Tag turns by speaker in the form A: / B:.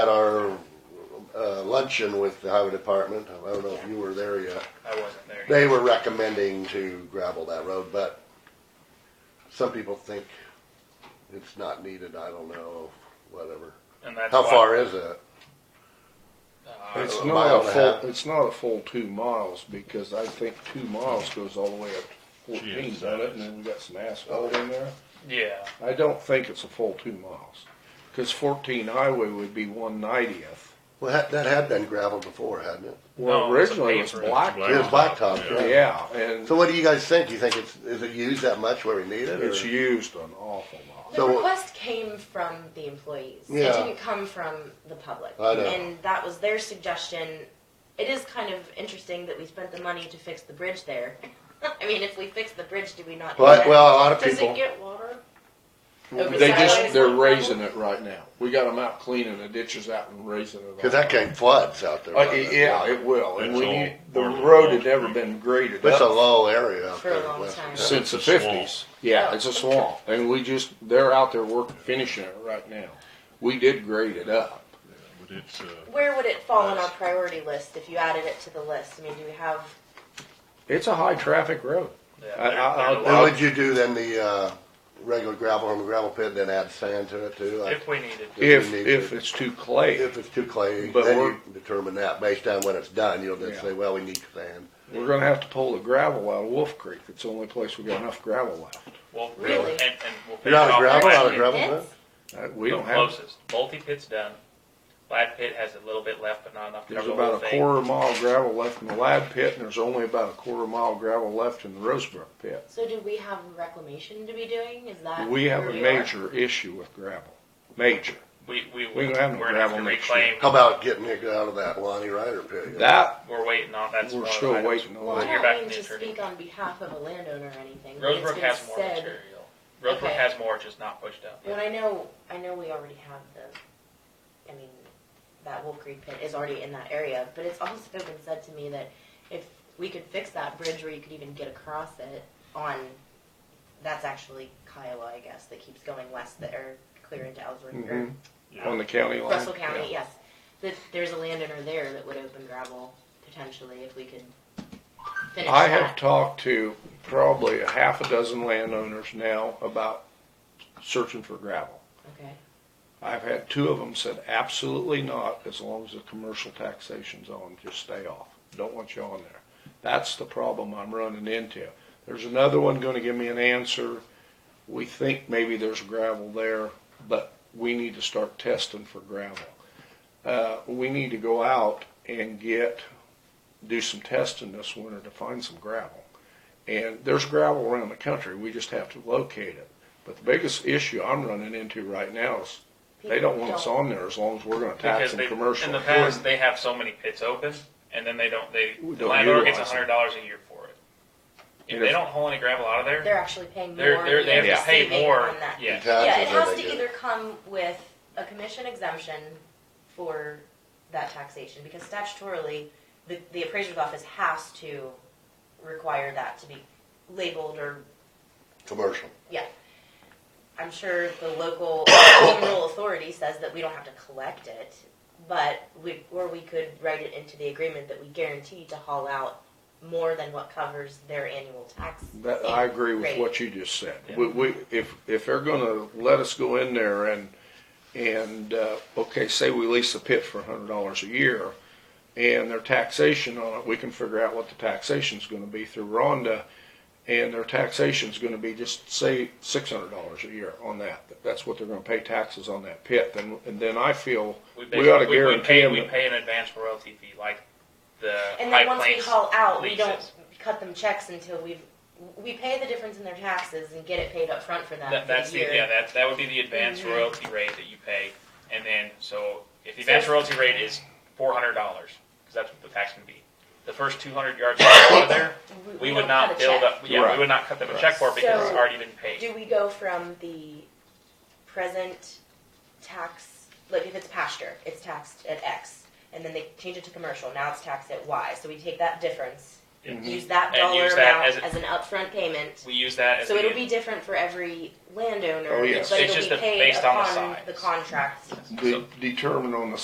A: At our uh, luncheon with the highway department, I don't know if you were there yet,
B: I wasn't there.
A: they were recommending to gravel that road, but some people think it's not needed, I don't know, whatever.
B: And that's
A: How
B: why-
A: far is it?
B: Uh,
C: It's
A: A
C: not
A: mile
C: a
A: and a half.
C: full, it's not a full two miles, because I think two miles goes all the way up to fourteen, doesn't
D: Jeez, that
C: it, and
D: is-
C: then we got some asphalt in there.
B: yeah,
C: I don't think it's a full two miles, cause fourteen highway would be one ninetieth.
A: Well, that- that had been gravelled before, hadn't it?
C: Well,
B: No, it's a
C: originally it's
B: paper.
C: black,
A: It was blacktop, yeah.
C: yeah, and
A: So what do you guys think? Do you think it's, is it used that much where we need it? or-
C: it's used an awful lot.
A: So-
E: The request came from the employees. It
A: Yeah.
E: didn't come from the public.
A: I know.
E: And that was their suggestion. It is kind of interesting that we spent the money to fix the bridge there. I mean, if we fix the bridge, do we not? do
A: Well,
E: that?
A: well, a lot of
E: Does
A: people,
E: it get water? Over
C: They
E: sideways
C: just, they're
E: on
C: raising it right now. We got them out cleaning the ditches out and raising it.
A: because
C: all
A: that
C: up.
A: came floods out there.
C: Uh,
A: wasn't it?
C: yeah, it will, and
D: It's
C: we
D: all
C: need, the
D: part of the
C: road had
D: Lost
C: never
D: Creek.
C: been graded
A: It's a
C: up
A: low area out
E: For a
A: there.
E: long
A: West-
E: time.
C: since the
D: It's a swamp.
C: fifties. Yeah, it's a swamp, and we just, they're out there working, finishing it right now. We did grade it up.
D: But it's, uh,
E: Where would it fall on our priority list if you added it to the list? I mean, do we have?
C: It's a high-traffic road.
B: yeah.
C: I- I-
B: there-
C: I'll-
B: there's a
A: Then
B: lot
A: would you do then the, uh, regular gravel from the gravel pit, then add sand to it too? Like,
B: if we needed.
C: If,
A: we need
C: if
A: to-
C: it's too clay,
A: If it's too clay,
C: But
A: then
C: we're-
A: you determine that based on when it's done, you'll
C: Yeah.
A: just say, well, we need sand.
C: we're gonna have to pull the gravel out of Wolf Creek. It's the only place we got enough gravel left.
B: Well,
E: Really?
B: And, and we'll
A: You're out of
B: finish off
A: gravel,
B: Lad
A: out of
B: Pit.
A: gravel, huh?
E: pits?
C: Uh, We
B: The
C: don't have,
B: Closest. Multi pit's done. Lad pit has a little bit left, but not enough to
C: there's
B: cover the whole
C: about a
B: thing.
C: quarter mile gravel left in the lab pit, and there's only about a quarter mile gravel left in the Rosebrook pit.
E: So do we have reclamation to be doing? Is that?
C: We have
E: where
C: a
E: are?
C: major issue with gravel, major.
B: We we
C: We don't have no
B: we're gonna have to
C: gravel next
B: reclaim.
A: How about getting it out of that Lonnie Ryder pit?
C: That,
B: We're waiting on. That's
C: we're
B: one of the
C: still
B: items.
C: waiting
E: Well, I
C: on.
B: Hear
E: don't
B: back
E: mean
B: from
E: to
B: the attorney.
E: speak on behalf of a landowner or anything. but it's
B: Rosebrook
E: been
B: has more
E: said-
B: material. Rosebrook
E: Okay.
B: has more, just not pushed out.
E: Well, I know, I know we already have the, I mean, that Wolf Creek pit is already in that area, but it's also been said to me that if we could fix that bridge where you could even get across it on, that's actually Kiowa, I guess, that keeps going west there, clear into Ellsworth, or
C: Mhm.
D: yeah.
C: On the county line.
E: Russell
C: Yeah.
E: County, yes. That there's a landowner there that would open gravel potentially if we could finish
C: I have
E: that.
C: talked to probably a half a dozen landowners now about searching for gravel.
E: Okay,
C: I've had two of them said absolutely not, as long as the commercial taxation's on, just stay off. Don't want you on there. That's the problem I'm running into. There's another one gonna give me an answer. We think maybe there's gravel there, but we need to start testing for gravel. Uh, we need to go out and get, do some testing this winter to find some gravel. And there's gravel around the country, we just have to locate it. But the biggest issue I'm running into right now is they don't want us
E: People
C: on there as long as we're gonna tax
B: Because
C: them
B: they,
C: commercial.
B: in the past, they have so many pits open, and then they don't. They
C: We
B: the
C: don't
B: landlord gets a
C: utilize
B: hundred dollars a year for it. If
C: And
B: they
C: if-
B: don't haul any gravel out of there,
E: They're actually paying more.
B: They're- they're- they
E: than
B: have to pay
E: receiving
B: more,
E: on that.
B: yeah.
E: Yeah, it
A: Taxes that
E: has
A: they
E: to
A: get.
E: either come with a commission exemption for that taxation, because statutorily, the, the appraiser's office has to require that to be labeled or,
A: Commercial.
E: yeah. I'm sure the local rural authority says that we don't have to collect it, but we, or we could write it into the agreement that we guarantee to haul out more than what covers their annual tax.
C: That, I agree with
E: rate.
C: what you just said.
B: Yeah.
C: We, we, if, if they're gonna let us go in there and, and, uh, okay, say we lease a pit for a hundred dollars a year, and their taxation on it, we can figure out what the taxation's gonna be through Rhonda, and their taxation's gonna be just, say, six hundred dollars a year on that. That's what they're gonna pay taxes on that pit, then, and then I feel
B: we,
C: we ought to
B: basically- we
C: guarantee
B: pay,
C: them.
B: we
C: that-
B: pay an advance royalty fee, like the
E: And
B: High
E: then once we
B: Plains
E: haul out, we
B: leases.
E: don't cut them checks until we've, we pay the difference in their taxes and get it paid up front for them
B: That, that's
E: for the
B: the, yeah,
E: year.
B: that, that would be the advance
E: Mhm.
B: royalty rate that you pay. And then, so if the
E: So-
B: advance royalty rate is $400, because that's what the tax can be. The first 200 yards out of there, we would
E: don't
B: not
E: cut a
B: build
E: check.
B: up, yeah,
C: Right.
B: we would not cut them a check for it because it's
E: So-
B: already been paid.
E: Do we go from the present tax, like if it's pasture, it's taxed at X, and then they change it to commercial, now it's taxed at Y, so we take that difference, use that
B: Mm-hmm. And
E: dollar
B: use that
E: amount
B: as a-
E: as an upfront payment.
B: We use that as
E: So
B: the,
E: it'll be different for every landowner,
C: Oh,
E: but
C: yes.
E: it'll
B: It's just
E: be
B: the-
E: paid
B: based on the
E: upon
B: size.
E: the contract.
C: de- Determine on the